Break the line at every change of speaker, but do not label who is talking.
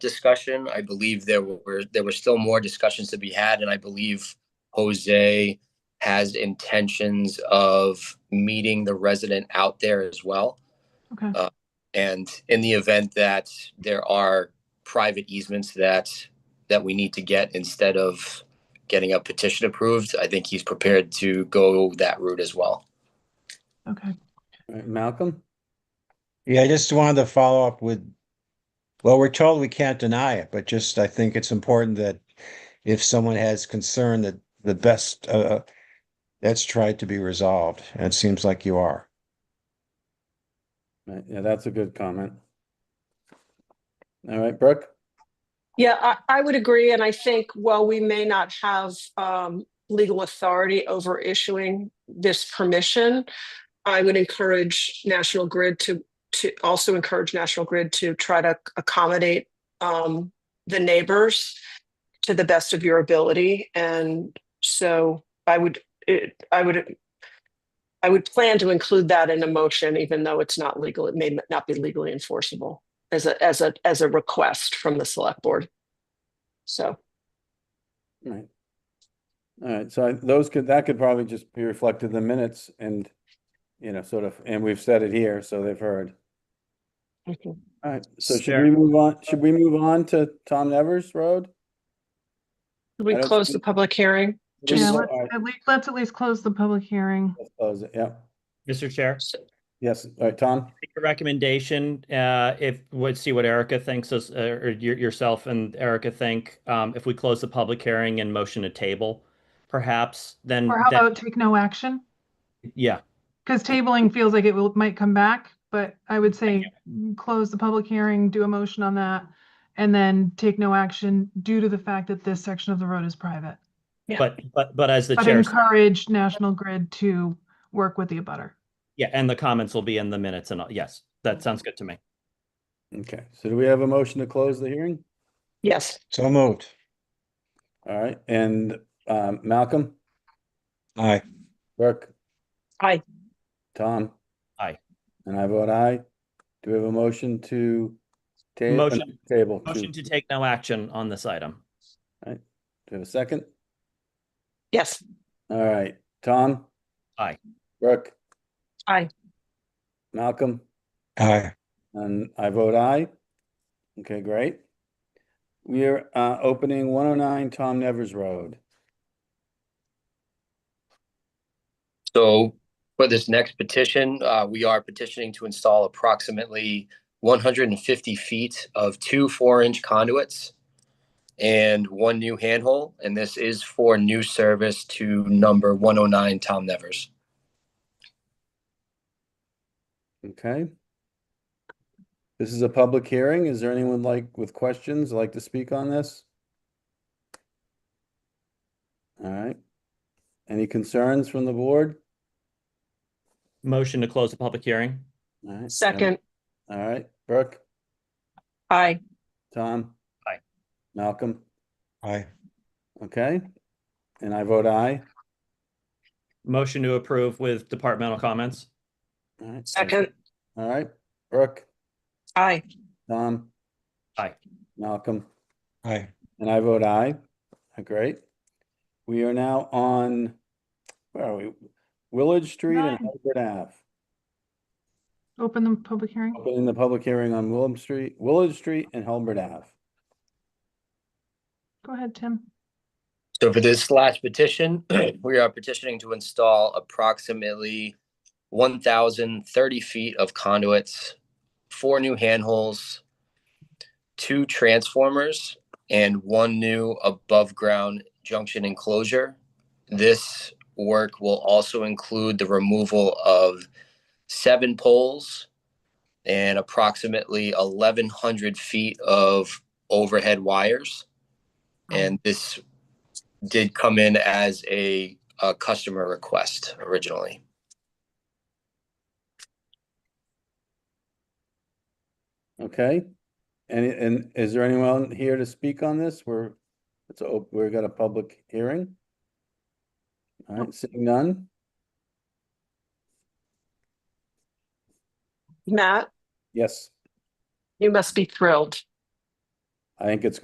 discussion. I believe there were, there were still more discussions to be had, and I believe Jose has intentions of meeting the resident out there as well.
Okay.
Uh, And in the event that there are private easements that, that we need to get instead of getting a petition approved, I think he's prepared to go that route as well.
Okay.
All right, Malcolm?
Yeah, I just wanted to follow up with, well, we're told we can't deny it, but just I think it's important that if someone has concern that the best, uh, that's tried to be resolved, and it seems like you are.
All right, Yeah, that's a good comment. All right, Brooke?
Yeah, I, I would agree. And I think while we may not have um, legal authority over issuing this permission, I would encourage National Grid to, to also encourage National Grid to try to accommodate um, the neighbors to the best of your ability. And so I would, it, I would, I would plan to include that in a motion, even though it's not legal, it may not be legally enforceable as a as a as a request from the select board. So
All right. All right, so I- those could, that could probably just be reflected in the minutes and, you know, sort of, and we've said it here, so they've heard.
okay.
All right, so should we move on, should we move on to Tom Nevers Road?
Should we
I don't
close the
think-
public hearing?
Yeah,
Just-
All
let's
right,
at least, let's at least close the public hearing.
let's Close it, yeah.
Mr. Chair,
Yes, all right, Tom?
make a recommendation, uh, if, let's see what Erica thinks, is- uh, or your- yourself and Erica think, um, if we close the public hearing and motion to table, perhaps, then,
Or how
then-
about take no action?
yeah,
Because tabling feels like it will, might come back, but I would say mm, close the public hearing, do a motion on that, and then take no action due to the fact that this section of the road is private.
Yeah.
but, but, but as the
But
chair, said-
encourage National Grid to work with the abutter.
yeah, and the comments will be in the minutes and, all- yes, that sounds good to me.
Okay, so do we have a motion to close the hearing?
Yes,
So moved.
All right, and, um, Malcolm?
Aye.
Brooke?
Aye.
Tom?
Aye.
And I vote aye. Do we have a motion to? ta- uh,
Motion-
Table. to-
Motion
Do
to take no action on this item.
we have a second?
yes,
All right, Tom?
Aye.
Brooke?
Aye.
Malcolm?
Aye.
And I vote aye. Okay, great. We are, uh, opening one oh nine Tom Nevers Road.
So for this next petition, uh, we are petitioning to install approximately one hundred and fifty feet of two four-inch conduits and one new handhole, and this is for new service to number one oh nine Tom Nevers.
Okay. This is a public hearing. Is there anyone like with questions, like to speak on this? All right. Any concerns from the board?
Motion to close the public hearing.
All right, um,
second,
All right, Brooke,
aye,
Tom?
Aye.
Malcolm,
Aye.
okay? And I vote aye.
Motion to approve with departmental comments.
All right.
second,
All right, Brooke,
aye,
Tom?
Aye.
Malcolm?
Aye.
And I vote aye. Uh, Great. We are now on, where are we? Willard Street and
Nine.
Harvard Ave.
Open the public hearing.
Opening the public hearing on Willard Street, Willard Street and Halbert Ave.
Go ahead, Tim.
So for this last petition, we are petitioning to install approximately one thousand thirty feet of conduits, four new handholes, two transformers, and one new above-ground junction enclosure. This work will also include the removal of seven poles and approximately eleven hundred feet of overhead wires. And this did come in as a, a customer request originally.
Okay? And, and is there anyone here to speak on this? We're, it's, a- we've got a public hearing. All right, seeing none.
Matt,
Yes,
you must be thrilled.
I think it's